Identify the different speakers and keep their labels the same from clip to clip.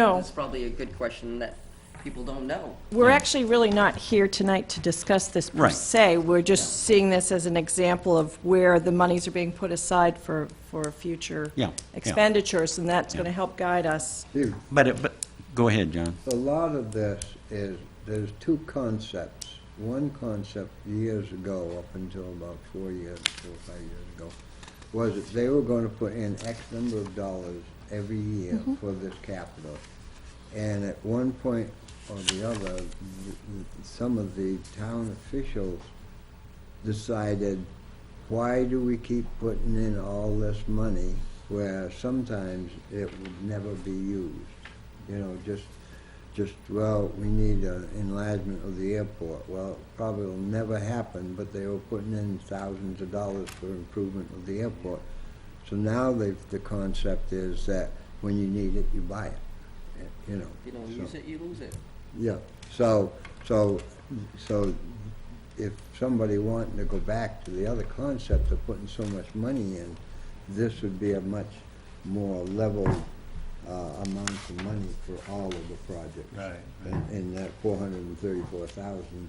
Speaker 1: No,
Speaker 2: That's probably a good question that people don't know.
Speaker 1: we're actually really not here tonight to discuss this per
Speaker 3: Right.
Speaker 1: se. We're just seeing this as an example of where the monies are being put aside for, for future
Speaker 3: Yeah, yeah.
Speaker 1: expenditures, and that's going to help guide us.
Speaker 4: Steve,
Speaker 3: But, it- but, go ahead, John.
Speaker 4: a lot of this is, there's two concepts. One concept years ago, up until about four years, four or five years ago, was that they were going to put in X number of dollars every year for this capital. And at one point or the other, th- th- some of the town officials decided, why do we keep putting in all this money where sometimes it would never be used? You know, just, just, well, we need an enlargement of the airport. Well, it probably will never happen, but they were putting in thousands of dollars for improvement of the airport. So now they've, the concept is that when you need it, you buy it, eh, you know.
Speaker 2: If you don't
Speaker 4: so.
Speaker 2: use it, you lose it.
Speaker 4: Yeah, so, so, so if somebody wanting to go back to the other concept of putting so much money in, this would be a much more level uh, amount of money for all of the projects.
Speaker 3: Right,
Speaker 4: And and that four hundred and thirty-four thousand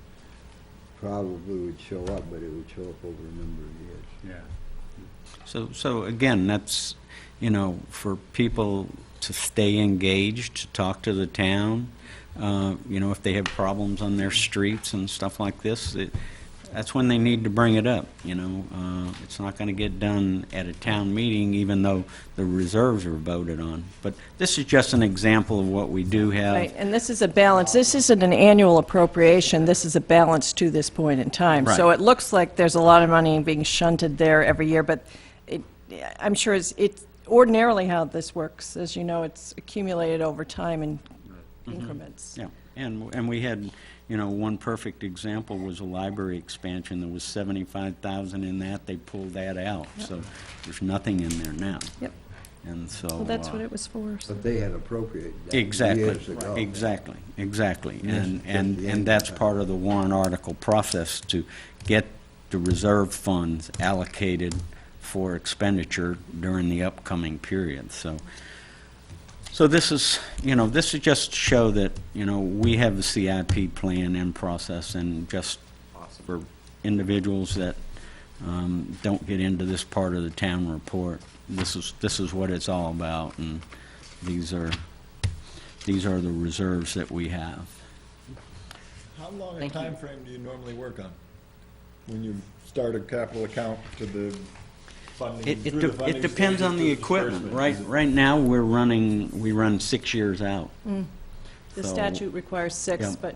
Speaker 4: probably would show up, but it would show up over a number of years.
Speaker 3: Yeah. So, so again, that's, you know, for people to stay engaged, to talk to the town, uh, you know, if they have problems on their streets and stuff like this, it- that's when they need to bring it up, you know? Uh, It's not going to get done at a town meeting, even though the reserves are voted on. But this is just an example of what we do have.
Speaker 1: Right, and this is a balance, this isn't an annual appropriation, this is a balance to this point in time. So
Speaker 3: Right.
Speaker 1: it looks like there's a lot of money being shunted there every year, but it, I'm sure it's, it's ordinarily how this works. As you know, it's accumulated over time in increments.
Speaker 3: Mm-hmm. Yeah, and, and we had, you know, one perfect example was a library expansion, there was seventy-five thousand in that, they pulled that out, so there's nothing in there now.
Speaker 1: Yep.
Speaker 3: And so.
Speaker 1: Well, that's what
Speaker 3: uh,
Speaker 1: it was for. so-
Speaker 4: But they had appropriated that years
Speaker 3: Exactly,
Speaker 4: ago.
Speaker 3: exactly, exactly. And,
Speaker 4: just
Speaker 3: and,
Speaker 4: the
Speaker 3: and
Speaker 4: end
Speaker 3: that's
Speaker 4: of that.
Speaker 3: part of the warrant article process, to get the reserve funds allocated for expenditure during the upcoming period, so. So this is, you know, this is just to show that, you know, we have the CIP plan in process, and just for individuals that um, don't get into this part of the town report, this is, this is what it's all about, and these are, these are the reserves that we have.
Speaker 5: How long a
Speaker 2: Thank you.
Speaker 5: time frame do you normally work on? When you start a capital account to the funding,
Speaker 3: It,
Speaker 5: through
Speaker 3: it,
Speaker 5: the
Speaker 3: de-
Speaker 5: funding
Speaker 3: it depends
Speaker 5: stage
Speaker 3: on the
Speaker 5: to
Speaker 3: equipment.
Speaker 5: disbursement?
Speaker 3: Right,
Speaker 5: Is it-
Speaker 3: right now, we're running, we run six years out.
Speaker 1: Mm. The
Speaker 3: So-
Speaker 1: statute requires six,
Speaker 3: Yeah.
Speaker 1: but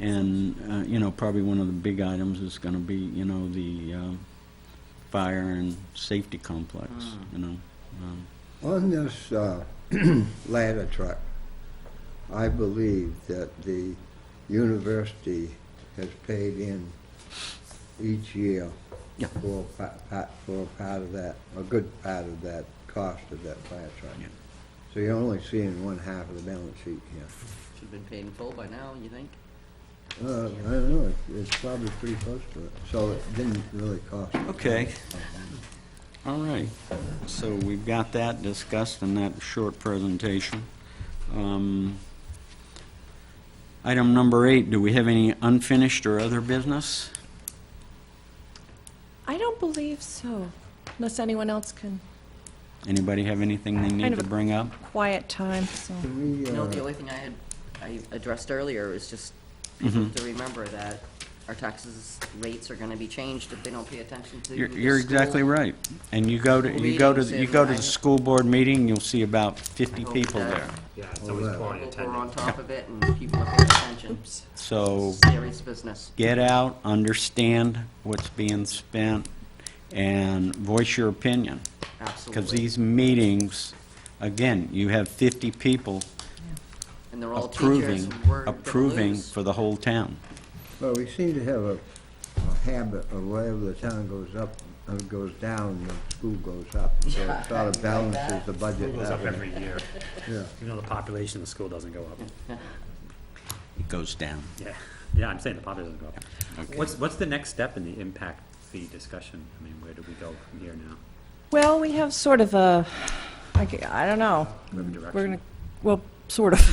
Speaker 3: And, uh, you know, probably one of the big items is gonna be, you know, the, um, fire and safety complex, you know. um,
Speaker 4: On this uh, ladder truck, I believe that the university has paid in each year
Speaker 3: Yeah.
Speaker 4: for a pa- pa- for a part of that, a good part of that cost of that fire truck.
Speaker 3: Yeah.
Speaker 4: So you're only seeing one half of the balance sheet here.
Speaker 2: Should've been paid in full by now, you think?
Speaker 4: Uh, I don't know, it's- it's probably pretty close to it, so it didn't really cost. us.
Speaker 3: Okay. All right, so we've got that discussed in that short presentation. Um, Item number eight, do we have any unfinished or other business?
Speaker 1: I don't believe so, unless anyone else can,
Speaker 3: Anybody have anything they
Speaker 1: Kind
Speaker 3: need
Speaker 1: of
Speaker 3: to
Speaker 1: a-
Speaker 3: bring up?
Speaker 1: quiet time, so.
Speaker 4: Can we,
Speaker 2: No,
Speaker 4: uh,
Speaker 2: the only thing I had, I addressed earlier is just
Speaker 3: Mm-hmm.
Speaker 2: people to remember that our taxes rates are gonna be changed if they don't pay attention to
Speaker 3: You're
Speaker 2: the
Speaker 3: you're exactly
Speaker 2: school.
Speaker 3: right. And you go to, you go to,
Speaker 2: Meetings
Speaker 3: you go to the
Speaker 2: and-
Speaker 3: school board meeting, you'll see about 50
Speaker 2: Hope
Speaker 3: people
Speaker 2: that-
Speaker 3: there.
Speaker 6: Yeah, it's
Speaker 4: Well,
Speaker 6: always
Speaker 4: that-
Speaker 6: poor in
Speaker 2: Hope We're
Speaker 6: attendance.
Speaker 2: on top of it and people are paying attention.
Speaker 3: So
Speaker 2: Serious business.
Speaker 3: get out, understand what's being spent, and voice your opinion. Because
Speaker 2: Absolutely.
Speaker 3: these meetings, again, you have 50 people
Speaker 2: And they're all teachers,
Speaker 3: approving,
Speaker 2: and we're gonna
Speaker 3: approving
Speaker 2: lose.
Speaker 3: for the whole town.
Speaker 4: Well, we seem to have a, a habit of wherever the town goes up, uh, goes down, the school goes up. So it sort of balances the budget.
Speaker 6: It goes up
Speaker 4: that way.
Speaker 6: every year.
Speaker 4: Yeah.
Speaker 6: Even though the population of the school doesn't go up.
Speaker 3: It goes down.
Speaker 6: Yeah, yeah, I'm saying the population doesn't go up. What's, what's the next step in the impact fee discussion? I mean, where do we go from here now?
Speaker 1: Well, we have sort of a, I g- I don't know.
Speaker 6: Moving
Speaker 1: We're
Speaker 6: direction?
Speaker 1: going to, well, sort of.